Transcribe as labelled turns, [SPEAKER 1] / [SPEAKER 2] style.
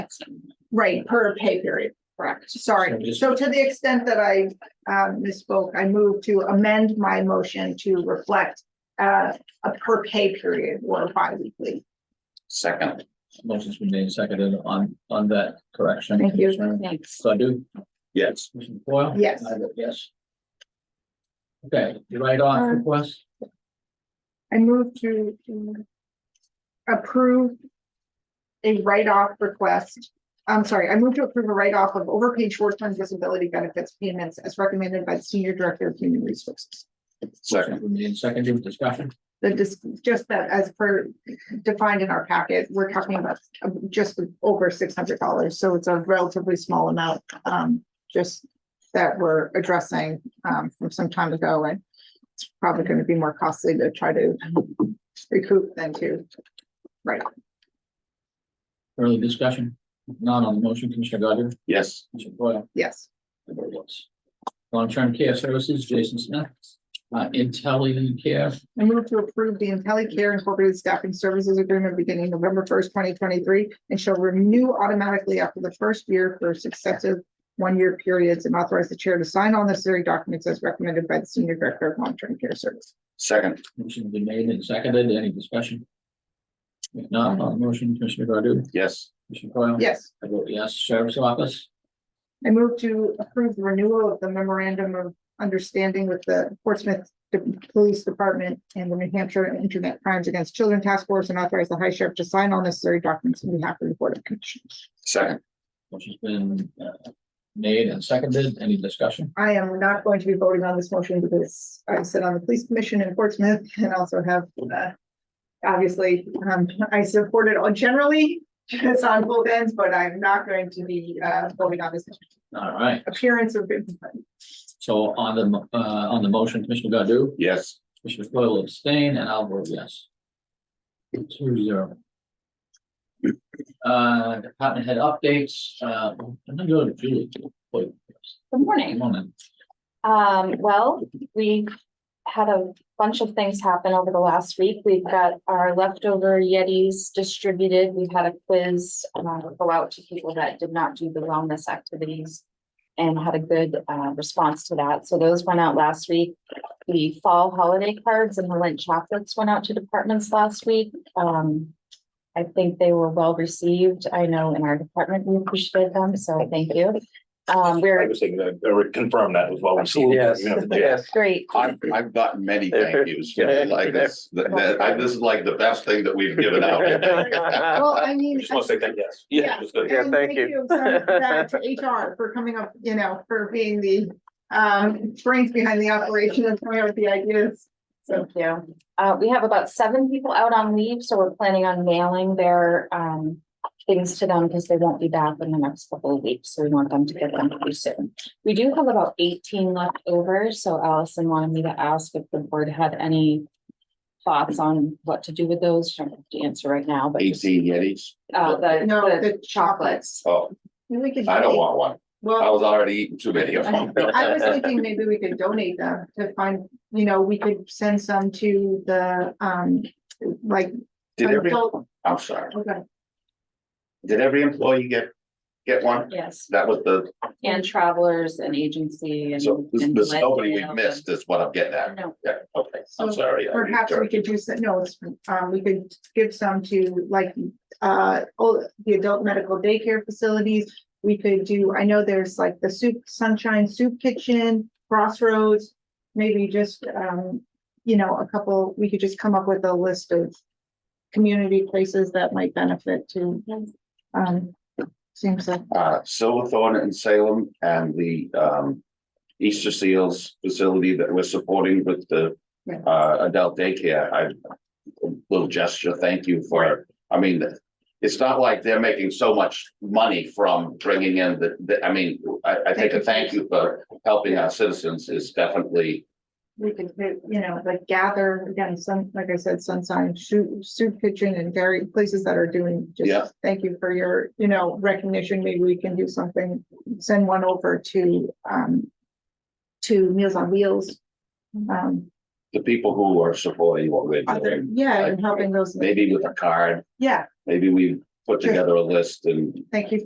[SPEAKER 1] Right, per pay period, correct,
[SPEAKER 2] So
[SPEAKER 1] sorry.
[SPEAKER 2] just-
[SPEAKER 1] So to the extent that I uh, misspoke, I move to amend my motion to reflect uh, a per pay period or bi-weekly.
[SPEAKER 2] Second. Motion's been made and seconded on, on that correction.
[SPEAKER 1] Thank you.
[SPEAKER 3] Thanks.
[SPEAKER 2] Godu?
[SPEAKER 4] Yes.
[SPEAKER 2] Commissioner Foil?
[SPEAKER 1] Yes.
[SPEAKER 2] I vote yes. Okay, you write off
[SPEAKER 1] Um,
[SPEAKER 2] request?
[SPEAKER 1] I move to to approve a write-off request. I'm sorry, I move to approve a write-off of overpaid short-term disability benefits payments as recommended by the Senior Director of Human Resources.
[SPEAKER 4] Second.
[SPEAKER 2] Motion's been made and seconded, discussion?
[SPEAKER 1] That just, just that as per defined in our packet, we're talking about uh, just over six hundred dollars, so it's a relatively small amount. Um, just that we're addressing um from some time ago and it's probably gonna be more costly to try to recoup than to.
[SPEAKER 2] Early discussion? None on the motion, Commissioner Godu?
[SPEAKER 4] Yes.
[SPEAKER 2] Commissioner Foil?
[SPEAKER 1] Yes,
[SPEAKER 2] I vote yes. Long-term care services, Jason Smith. Uh, Intelli Care,
[SPEAKER 1] I move to approve the IntelliCare Incorporated Staffing Services Agreement beginning November first, twenty twenty-three and shall renew automatically after the first year for successive one-year periods and authorize the chair to sign all necessary documents as recommended by the Senior Director of Long-Term Care Service.
[SPEAKER 4] Second.
[SPEAKER 2] motion been made and seconded, any discussion? If not, on the motion, Commissioner Godu?
[SPEAKER 4] Yes.
[SPEAKER 2] Commissioner Foil?
[SPEAKER 1] Yes,
[SPEAKER 2] I vote yes. Sheriff's Office,
[SPEAKER 1] I move to approve the renewal of the memorandum of understanding with the Portsmouth De- Police Department and the New Hampshire Internet Crimes Against Children Task Force and authorize the High Sheriff to sign all necessary documents on behalf of the Board of Commissioners.
[SPEAKER 4] Second.
[SPEAKER 2] which has been uh, made and seconded. Any discussion?
[SPEAKER 1] I am not going to be voting on this motion because I sit on the police commission in Portsmouth and also have, uh, obviously, um, I support it on generally, it's on both ends, but I'm not going to be, uh, voting on this
[SPEAKER 2] All right.
[SPEAKER 1] appearance of.
[SPEAKER 2] So on the, mo- uh, on the motion, Commissioner Godu,
[SPEAKER 4] Yes.
[SPEAKER 2] Commissioner Foyle will abstain, and I'll vote yes. Two zero. Uh, department head updates, uh, I'm gonna go to Julie. Wait,
[SPEAKER 3] Good
[SPEAKER 2] a
[SPEAKER 3] morning.
[SPEAKER 2] moment.
[SPEAKER 3] Um, well, we've had a bunch of things happen over the last week. We've got our leftover Yetis distributed. We've had a quiz uh, go out to people that did not do the wellness activities and had a good uh, response to that. So those went out last week. The fall holiday cards and the Lent chocolates went out to departments last week. Um, I think they were well received. I know in our department, we appreciated them, so thank you. Um,
[SPEAKER 5] I
[SPEAKER 3] we're
[SPEAKER 5] was thinking that, or confirm that as well.
[SPEAKER 6] Yes,
[SPEAKER 5] Yeah.
[SPEAKER 6] yes.
[SPEAKER 3] great.
[SPEAKER 4] I've, I've gotten many thank yous. for this. Like this, that, that- I- this is like the best thing that we've given out.
[SPEAKER 1] Well,
[SPEAKER 4] Uh,
[SPEAKER 1] I mean.
[SPEAKER 5] Just want to say that, yes.
[SPEAKER 1] Yeah.
[SPEAKER 5] It was good.
[SPEAKER 6] Yeah,
[SPEAKER 1] And
[SPEAKER 6] thank you.
[SPEAKER 1] so bad To HR for coming up, you know, for being the, um, brains behind the operation and coming up with the ideas. So,
[SPEAKER 3] Thank you. Uh, we have about seven people out on leave, so we're planning on mailing their, um, things to them because they won't be back in the next couple of weeks, so we want them to get them pretty soon. We do have about eighteen left over, so Allison wanted me to ask if the board had any thoughts on what to do with those. I don't have to answer right now, but just,
[SPEAKER 4] Eighteen Yetis.
[SPEAKER 3] uh, the,
[SPEAKER 1] No,
[SPEAKER 3] the
[SPEAKER 1] the
[SPEAKER 3] chocolates.
[SPEAKER 4] Oh,
[SPEAKER 1] we could.
[SPEAKER 4] I don't
[SPEAKER 1] donate-
[SPEAKER 4] want one. I
[SPEAKER 1] Well,
[SPEAKER 4] was already eating too many of them.
[SPEAKER 1] I was thinking maybe we could donate them to find, you know, we could send some to the, um, like.
[SPEAKER 4] Did every,
[SPEAKER 1] adult-
[SPEAKER 4] I'm sorry.
[SPEAKER 1] Okay,
[SPEAKER 4] Did every employee get, get one?
[SPEAKER 3] Yes,
[SPEAKER 4] That was the,
[SPEAKER 3] and travelers and agency and.
[SPEAKER 4] so there's
[SPEAKER 3] and
[SPEAKER 4] there's nobody we
[SPEAKER 3] Leadville and-
[SPEAKER 4] missed is what I'm getting at.
[SPEAKER 3] No,
[SPEAKER 4] Yeah, okay,
[SPEAKER 1] So
[SPEAKER 4] I'm sorry. I-
[SPEAKER 1] Perhaps we could do some, no, it's, um, we could give some to like, uh, all the adult medical daycare facilities. We could do, I know there's like the soup, sunshine soup kitchen, crossroads, maybe just, um, you know, a couple, we could just come up with a list of community places that might benefit to, um, seems like,
[SPEAKER 4] uh, Silverthorne in Salem and the, um, Easter Seals facility that we're supporting with the,
[SPEAKER 1] Yeah.
[SPEAKER 4] uh, adult daycare. I, a little gesture, thank you for, I mean, it's not like they're making so much money from bringing in the, the, I mean, I, I think a thank you for helping our citizens is definitely,
[SPEAKER 1] we could, do, you know, like gather, again, some, like I said, sunshine, soup, soup kitchen and dairy places that are doing.
[SPEAKER 4] Yeah.
[SPEAKER 1] just Thank you for your, you know, recognition. Maybe we can do something, send one over to, um, to Meals on Wheels. Um,
[SPEAKER 4] the people who are supporting what we're
[SPEAKER 1] other,
[SPEAKER 4] doing.
[SPEAKER 1] yeah, and helping those,
[SPEAKER 4] Maybe with a card,
[SPEAKER 1] yeah,
[SPEAKER 4] maybe we put together a list and
[SPEAKER 1] thank you